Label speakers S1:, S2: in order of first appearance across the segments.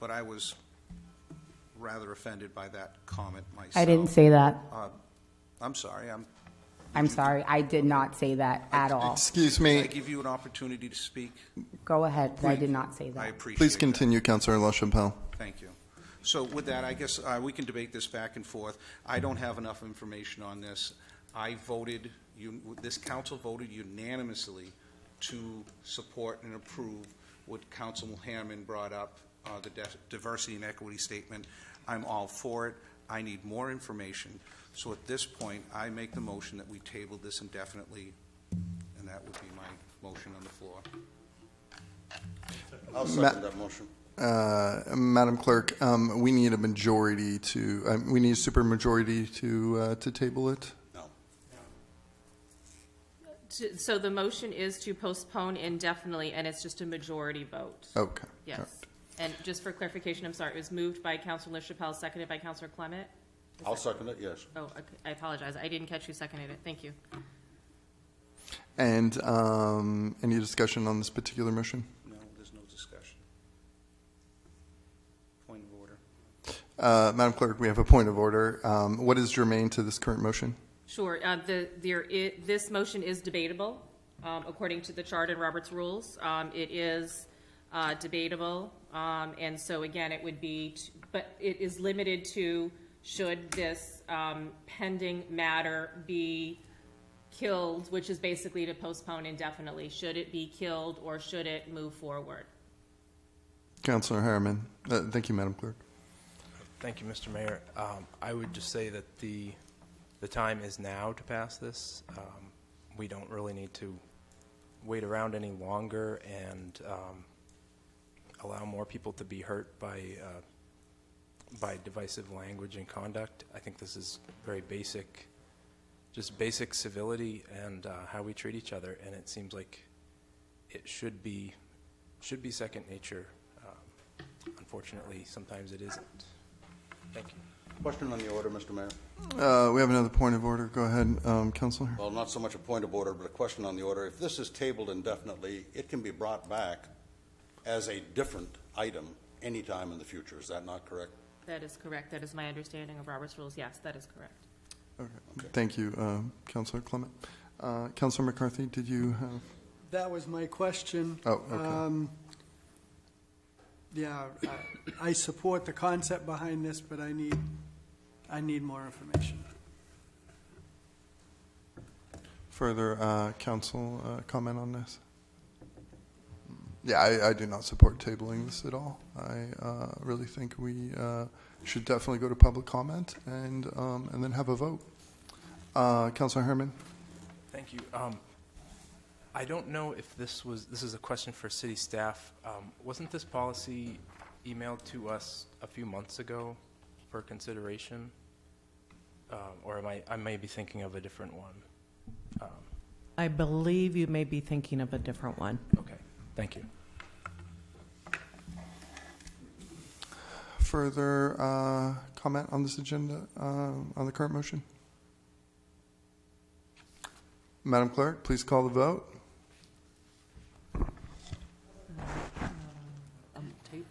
S1: but I was rather offended by that comment myself.
S2: I didn't say that.
S1: I'm sorry, I'm,
S2: I'm sorry. I did not say that at all.
S3: Excuse
S1: I
S3: me.
S1: give you an opportunity to speak.
S2: Go ahead. I did not say
S1: I
S2: that.
S1: appreciate
S3: Please
S1: that.
S3: continue, Councilor LaChapelle.
S1: Thank you. So with that, I guess uh, we can debate this back and forth. I don't have enough information on this. I voted, you- this council voted unanimously to support and approve what Councilman Hammond brought up, uh, the def- diversity and equity statement. I'm all for it. I need more information. So at this point, I make the motion that we table this indefinitely, and that would be my motion on the floor.
S4: I'll second that motion.
S3: Uh, Madam Clerk, um, we need a majority to, uh, we need a supermajority to, uh, to table it.
S4: No.
S5: To- So the motion is to postpone indefinitely, and it's just a majority vote.
S3: Oh, Okay.
S5: Yes. And just for clarification, I'm sorry, it was moved by Councilor LaChapelle, seconded by Councilor Clement?
S4: I'll second it, yes.
S5: Oh, okay, I apologize, I didn't catch who seconded it, thank you.
S3: And um, any discussion on this particular motion?
S1: No, there's no discussion. Point of order.
S3: Uh, Madam Clerk, we have a point of order. Um, What is germane to this current motion?
S5: Sure, uh, the, there, i this motion is debatable, um, according to the chart and Robert's rules. Um, it is, uh, debatable, um, and so again, it would be, t- but it is limited to should this, um, pending matter be killed, which is basically to postpone indefinitely. Should it be killed or should it move forward?
S3: Councilor Harriman. Uh, Thank you, Madam Clerk.
S6: Thank you, Mr. Mayor. Um, I would just say that the, the time is now to pass this. Um, We don't really need to wait around any longer and um, allow more people to be hurt by, uh, by divisive language and conduct. I think this is very basic, just basic civility and uh, how we treat each other, and it seems like it should be, should be second nature. Um, Unfortunately, sometimes it isn't. Thank you.
S4: Question on the order, Mr. Mayor.
S3: Uh, We have another point of order. Go ahead, um, Councilor.
S4: Well, not so much a point of order, but a question on the order. If this is tabled indefinitely, it can be brought back as a different item anytime in the future. Is that not correct?
S5: That is correct, that is my understanding of Robert's rules, yes, that is correct.
S3: Okay. Thank you, uh, Councilor Clement. Uh, Councilor McCarthy, did you have?
S7: That was my question.
S3: Oh, okay.
S7: Um, Yeah, I- I support the concept behind this, but I need, I need more information.
S3: Further uh, council uh, comment on this? Yeah, I, I do not support tabling this at all. I uh, really think we uh, should definitely go to public comment and um, and then have a vote. Uh, Councilor Herman,
S6: Thank you. Um, I don't know if this was, this is a question for city staff. Um, Wasn't this policy emailed to us a few months ago for consideration? Um, Or am I, I may be thinking of a different one.
S8: I believe you may be thinking of a different one.
S6: Okay, thank you.
S3: further uh, comment on this agenda um, on the current motion. Madam Clerk, please call the vote.
S5: Okay,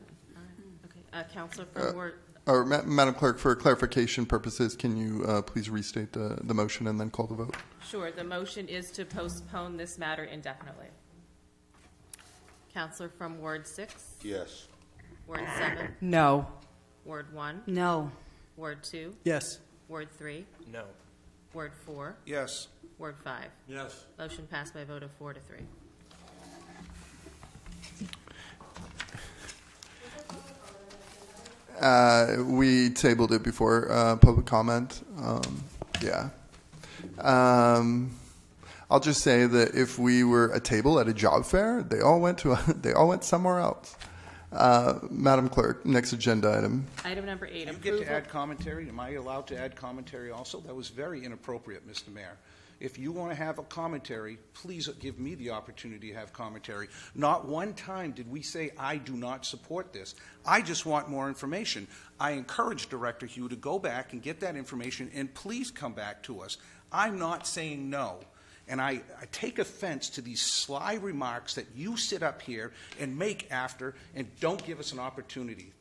S5: uh, Counselor from Ward,
S3: Or Ma- Madam Clerk, for clarification purposes, can you uh, please restate the, the motion and then call the vote?
S5: Sure, the motion is to postpone this matter indefinitely. Counselor from Ward six,
S4: Yes.
S5: Ward seven,
S8: No.
S5: Ward one,
S2: No.
S5: Ward two,
S7: Yes,
S5: Ward three,
S6: No.
S5: Ward four,
S1: Yes.
S5: Ward five.
S4: Yes.
S5: Motion passed by a vote of four to three.
S3: Uh, we tabled it before uh, public comment. Um, yeah. Um, I'll just say that if we were a table at a job fair, they all went to they all went somewhere else. Uh, Madam Clerk, next agenda item.
S5: Item number eight,
S1: You get to
S5: approval.
S1: add commentary. Am I allowed to add commentary also? That was very inappropriate, Mr. Mayor. If you want to have a commentary, please give me the opportunity to have commentary. Not one time did we say, I do not support this. I just want more information. I encourage Director Hugh to go back and get that information, and please come back to us. I'm not saying no. And I, I take offense to these sly remarks that you sit up here and make after and don't give us an opportunity.